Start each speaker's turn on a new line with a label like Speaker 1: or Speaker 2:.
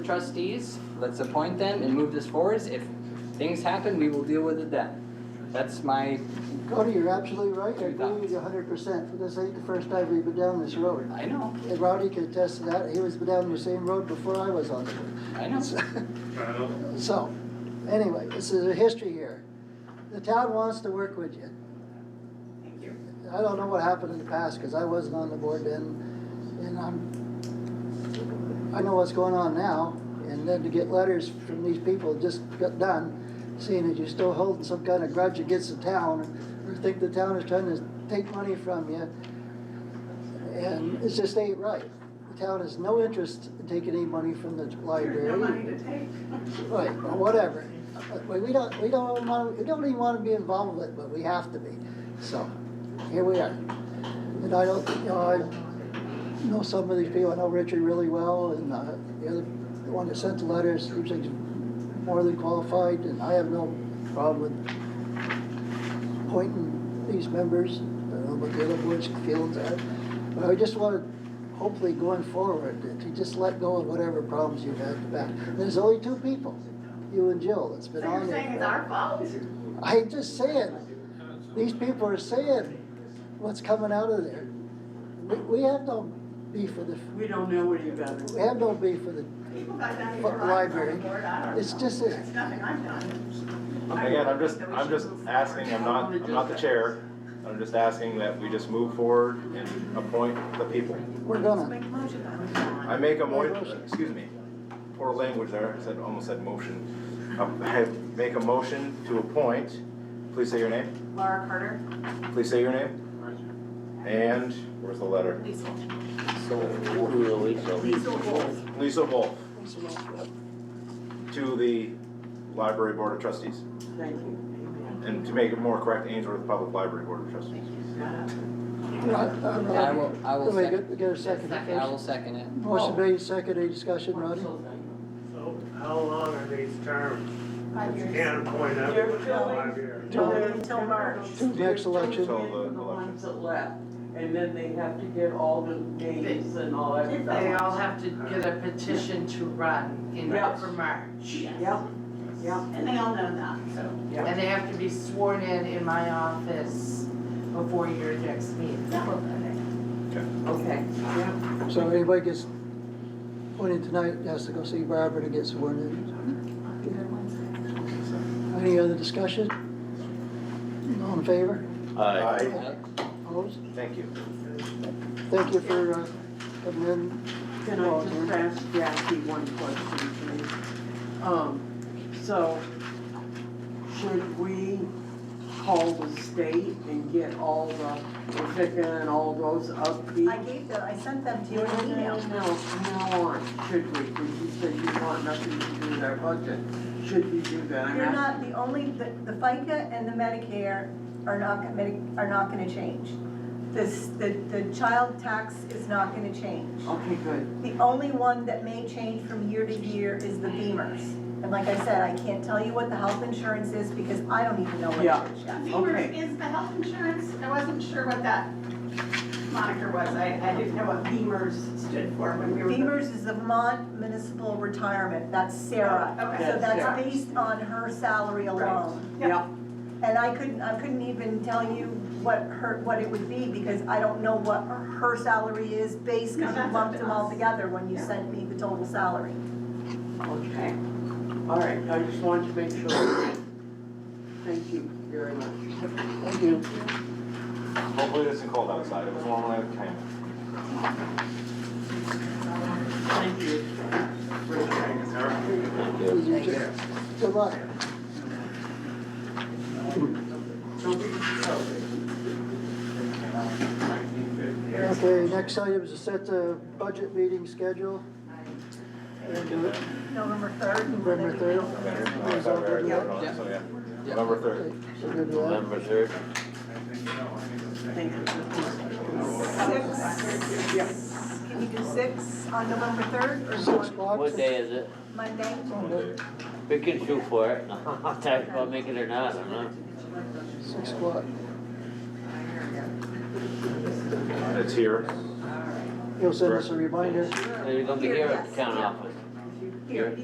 Speaker 1: trustees, let's appoint them and move this forward. If things happen, we will deal with it then. That's my,
Speaker 2: Cody, you're absolutely right. I
Speaker 1: Two
Speaker 2: agree with you hundred percent. This ain't the first time we've been down this road.
Speaker 1: I know,
Speaker 2: And Rowdy can attest to that. He was down the same road before I was on it.
Speaker 1: I know.
Speaker 3: I don't,
Speaker 2: So, anyway, this is a history here. The town wants to work with you.
Speaker 1: Thank you.
Speaker 2: I don't know what happened in the past, because I wasn't on the board then, and I'm, I know what's going on now, and then to get letters from these people just got done, seeing that you're still holding some kind of grudge against the town, or think the town is trying to take money from you, and it just ain't right. The town has no interest in taking any money from the library.
Speaker 4: There's no money to take.
Speaker 2: Right, well, whatever. But We don't, we don't want, we don't even want to be involved with it, but we have to be. So, here we are. And I don't, you know, I know some of these people, I know Richard really well, and uh, the other, the one that sent the letters, seems like he's more than qualified, and I have no problem with appointing these members, I don't know what the other boards feel that. But I just want to, hopefully going forward, that you just let go of whatever problems you've had in the back. There's only two people, you and Jill, that's
Speaker 4: So
Speaker 2: been on
Speaker 4: you're
Speaker 2: there.
Speaker 4: saying it's
Speaker 2: forever.
Speaker 4: our fault?
Speaker 2: I'm just saying, these people are saying what's coming out of there. We, we have no beef with the,
Speaker 5: We don't know what you got.
Speaker 2: we have no beef with the,
Speaker 4: People got down here.
Speaker 2: But library, it's just a-
Speaker 4: It's nothing I've done. I
Speaker 3: again, I'm
Speaker 4: don't
Speaker 3: just,
Speaker 4: think that we
Speaker 3: I'm
Speaker 4: should
Speaker 3: just
Speaker 4: move forward.
Speaker 3: asking, I'm not, I'm not the chair. I'm just asking that we just move forward and appoint the people.
Speaker 2: we're
Speaker 4: Let's
Speaker 2: gonna,
Speaker 4: make a motion on it.
Speaker 3: I make a mo, excuse me, poor language there, I said, almost said motion. Uh, I make a motion to appoint, please say your name,
Speaker 4: Laura Carter,
Speaker 3: please say your name. And, where's the letter?
Speaker 4: Lisa.
Speaker 5: Lisa Wolf.
Speaker 3: Lisa Wolf to the Library Board of Trustees.
Speaker 5: Thank you.
Speaker 3: And to make it more correct, Ainsworth Public Library Board of Trustees.
Speaker 1: I will, I will
Speaker 2: let me get,
Speaker 1: second,
Speaker 2: get a second.
Speaker 1: I will second it. Oh.
Speaker 2: Motion made, second, any discussion, Rodney?
Speaker 6: So how long are these terms?
Speaker 4: Five years.
Speaker 6: Can't point out
Speaker 5: They're
Speaker 6: what's
Speaker 5: filling-
Speaker 6: five years.
Speaker 2: Till-
Speaker 4: till March.
Speaker 5: Two-
Speaker 2: Next election.
Speaker 5: two million
Speaker 3: Till the
Speaker 5: are the ones that left, and then they have to get all the names and all that
Speaker 4: If
Speaker 7: They
Speaker 5: stuff.
Speaker 7: all have to get a petition to run in
Speaker 5: Yeah.
Speaker 7: for March.
Speaker 5: Yep, yep,
Speaker 4: And they all know that, so.
Speaker 5: yep.
Speaker 7: And they have to be sworn in in my office before your next meeting.
Speaker 4: that will do
Speaker 5: Okay, yeah.
Speaker 2: So anybody gets appointed tonight, has to go see Barbara to get sworn in. Any other discussion? All in favor?
Speaker 3: Aye.
Speaker 2: Opposed?
Speaker 3: Thank you.
Speaker 2: Thank you for, uh, coming in.
Speaker 5: Can I just ask Jackie one question, please? Um, so, should we call the state and get all the, Rebecca and all those
Speaker 4: it.
Speaker 5: upbeat?
Speaker 4: I gave them, I sent them to you
Speaker 5: No,
Speaker 4: in an
Speaker 5: no,
Speaker 4: email.
Speaker 5: no, from now on, should we, because you said you want nothing to do with our budget, should we do that? I'm
Speaker 4: You're
Speaker 5: asking.
Speaker 4: not the only, the the FICA and the Medicare are not, gonna- are not gonna change. This, the, the child tax is not gonna change.
Speaker 5: Okay, good,
Speaker 4: The only one that may change from year to year is the Beamers. And like I said, I can't tell you what the health insurance is because I don't even know what
Speaker 5: Yeah.
Speaker 4: it is yet.
Speaker 5: Okay.
Speaker 8: Beamer is the health insurance, I wasn't sure what that moniker was, I, I didn't know what Beamers stood for when we were.
Speaker 4: Beamers is the Vermont Municipal Retirement, that's Sarah.
Speaker 8: Oh, okay.
Speaker 4: So
Speaker 5: Sarah.
Speaker 4: that's based on her salary alone.
Speaker 8: Yep.
Speaker 5: yeah,
Speaker 4: And I couldn't, I couldn't even tell you what her, what it would be because I don't know what her salary is based,
Speaker 8: No,
Speaker 4: because you
Speaker 8: that's
Speaker 4: lumped
Speaker 8: up to
Speaker 4: them all
Speaker 8: us.
Speaker 4: together when you
Speaker 8: Yeah.
Speaker 4: sent me the total salary.
Speaker 5: okay. All right, I just wanted to make sure. Thank you very much.
Speaker 2: Thank you.
Speaker 3: Hopefully it isn't cold outside, it was warm when I came.
Speaker 5: Thank you.
Speaker 2: Good luck. Okay, next item is to set the budget meeting schedule. And, uh,
Speaker 4: November third.
Speaker 2: November third.
Speaker 3: Oh, I thought we already voted on it, so yeah. November
Speaker 2: Okay,
Speaker 3: third.
Speaker 2: so we're gonna do that.
Speaker 3: third.
Speaker 5: Thank you.
Speaker 4: Six. Can you do six on November third or
Speaker 2: Six
Speaker 4: do
Speaker 2: o'clock.
Speaker 9: What day is it?
Speaker 4: it Monday?
Speaker 9: We can shoot for it. I'll talk about making it or not, I'm not.
Speaker 2: Six o'clock.
Speaker 3: It's here.
Speaker 2: You'll send us a reminder.
Speaker 9: You're gonna be here at the town office.
Speaker 4: here,